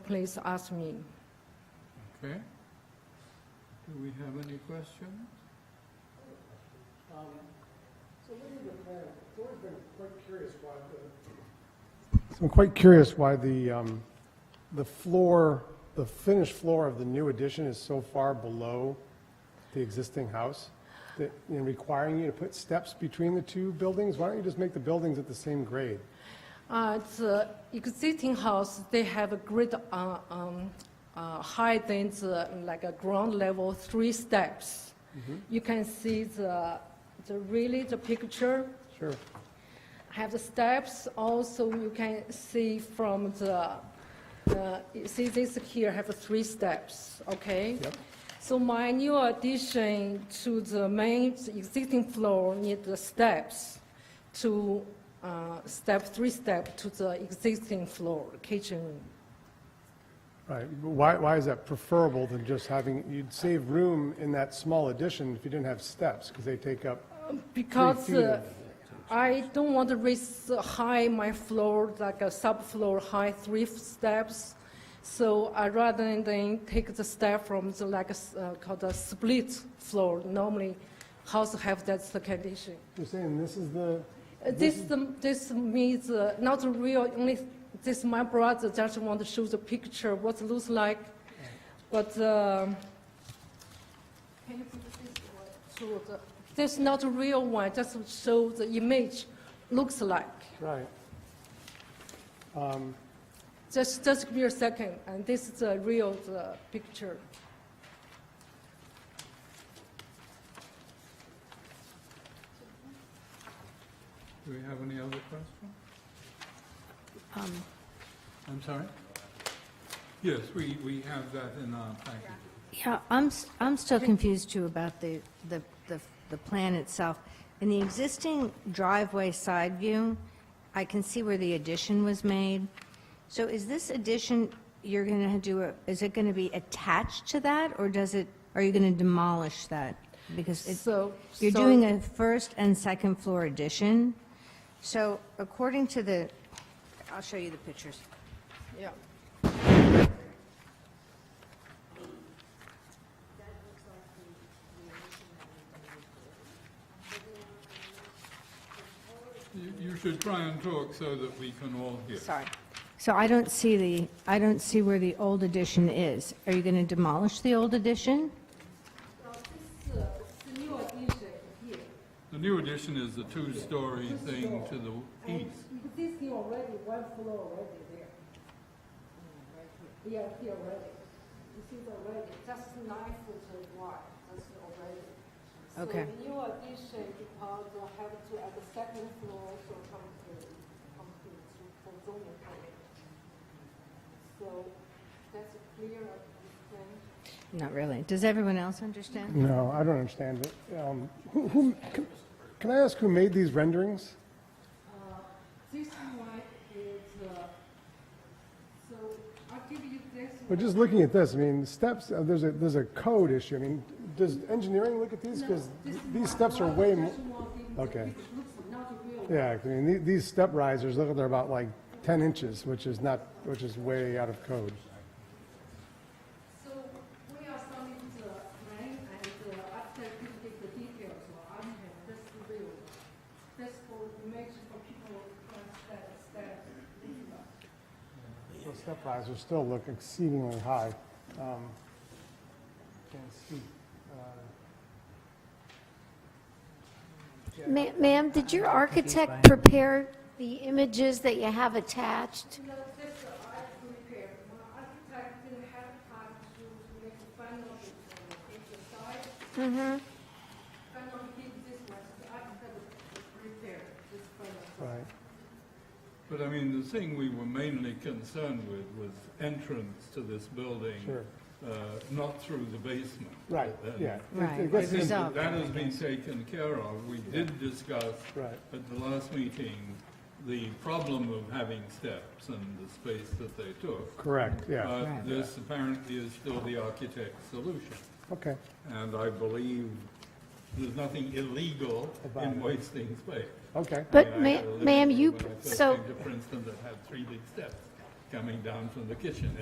please ask me. Okay. Do we have any questions? Um, So when did the plan, it's always been quite curious why the. So I'm quite curious why the, um, the floor, the finished floor of the new addition is so far below the existing house. That, in requiring you to put steps between the two buildings, why don't you just make the buildings at the same grade? Uh, The existing house, they have a great, uh, um, uh, high than the, like a ground level, three steps. You can see the, the really the picture, Sure. have the steps, also you can see from the, uh, you see this here have three steps, okay? Yep. So my new addition to the main existing floor need the steps to, uh, step, three step to the existing floor, kitchen room. Right, but why, why is that preferable than just having, you'd save room in that small addition if you didn't have steps, because they take up Because feet uh, of- I don't want to raise uh, high my floor, like a subfloor high three f- steps. So I rather than take the step from the like a s- uh, called a split floor. Normally, house have that's the condition. You're saying this is the, Uh, This the- this means uh, not the real. Only this my brother just want to show the picture what looks like, but. um can you put this one to the- This is not a real one, just to show the image looks like. right. Um, Just, just give me a second, and this is the real the picture. Do we have any other questions? I'm sorry? Yes, we, we have that in our package. Yeah, I'm, s- I'm still confused too about the, the, the, the plan itself. In the existing driveway side view, I can see where the addition was made. So is this addition, you're going to do, a- is it going to be attached to that, or does it, are you going to demolish that? Because it, So. you're so- doing a first and second floor addition. So according to the, I'll show you the pictures. Yeah. You, you should try and talk so that we can all hear. Sorry. So I don't see the, I don't see where the old addition is. Are you going to demolish the old addition? uh, The new addition is the two-story thing to the east. Existing already, one floor already there. Yeah, here already. This is already, just nine foot wide, that's already. Okay. So new addition, because I have to add the second floor, so come to, come to, to, for zoning permit. So that's clear, understand? Not really. Does everyone else understand? No, I don't understand it. Um, Who, who- can- can I ask who made these renderings? This one is, uh, so I'll give you this one. But just looking at this, I mean, steps, uh, there's a, there's a code issue. I mean, does engineering look at these? Because these steps are way more, okay. Yeah, I mean, the- these step risers, look, they're about like 10 inches, which is not, which is way out of code. So we are starting the plan and uh, after you get the details, well, I have this real. This for image for people who understand, understand. Those step risers still look exceedingly high. Um, Can't see. uh, Ma- Ma'am, did your architect prepare the images that you have attached? No, this uh, I prepare. My architect didn't have time to to make the final design. It's a size. Final give this one, so the architect prepare this final. design. Right. But I mean, the thing we were mainly concerned with was entrance to this building. Sure. Uh, not through the basement. Right, And yeah. It- Right. it I gets- think that Resolved, that has been taken care of. We did discuss Right. at the last meeting, the problem of having steps and the space that they took. Correct, yeah, But Right. this apparently is still the architect's solution. okay. And I believe there's nothing illegal About in it. wasting space. Okay, But I mean, I ma- had a living ma'am, room you, when I first so... came to Princeton that had three big steps coming down from the kitchen.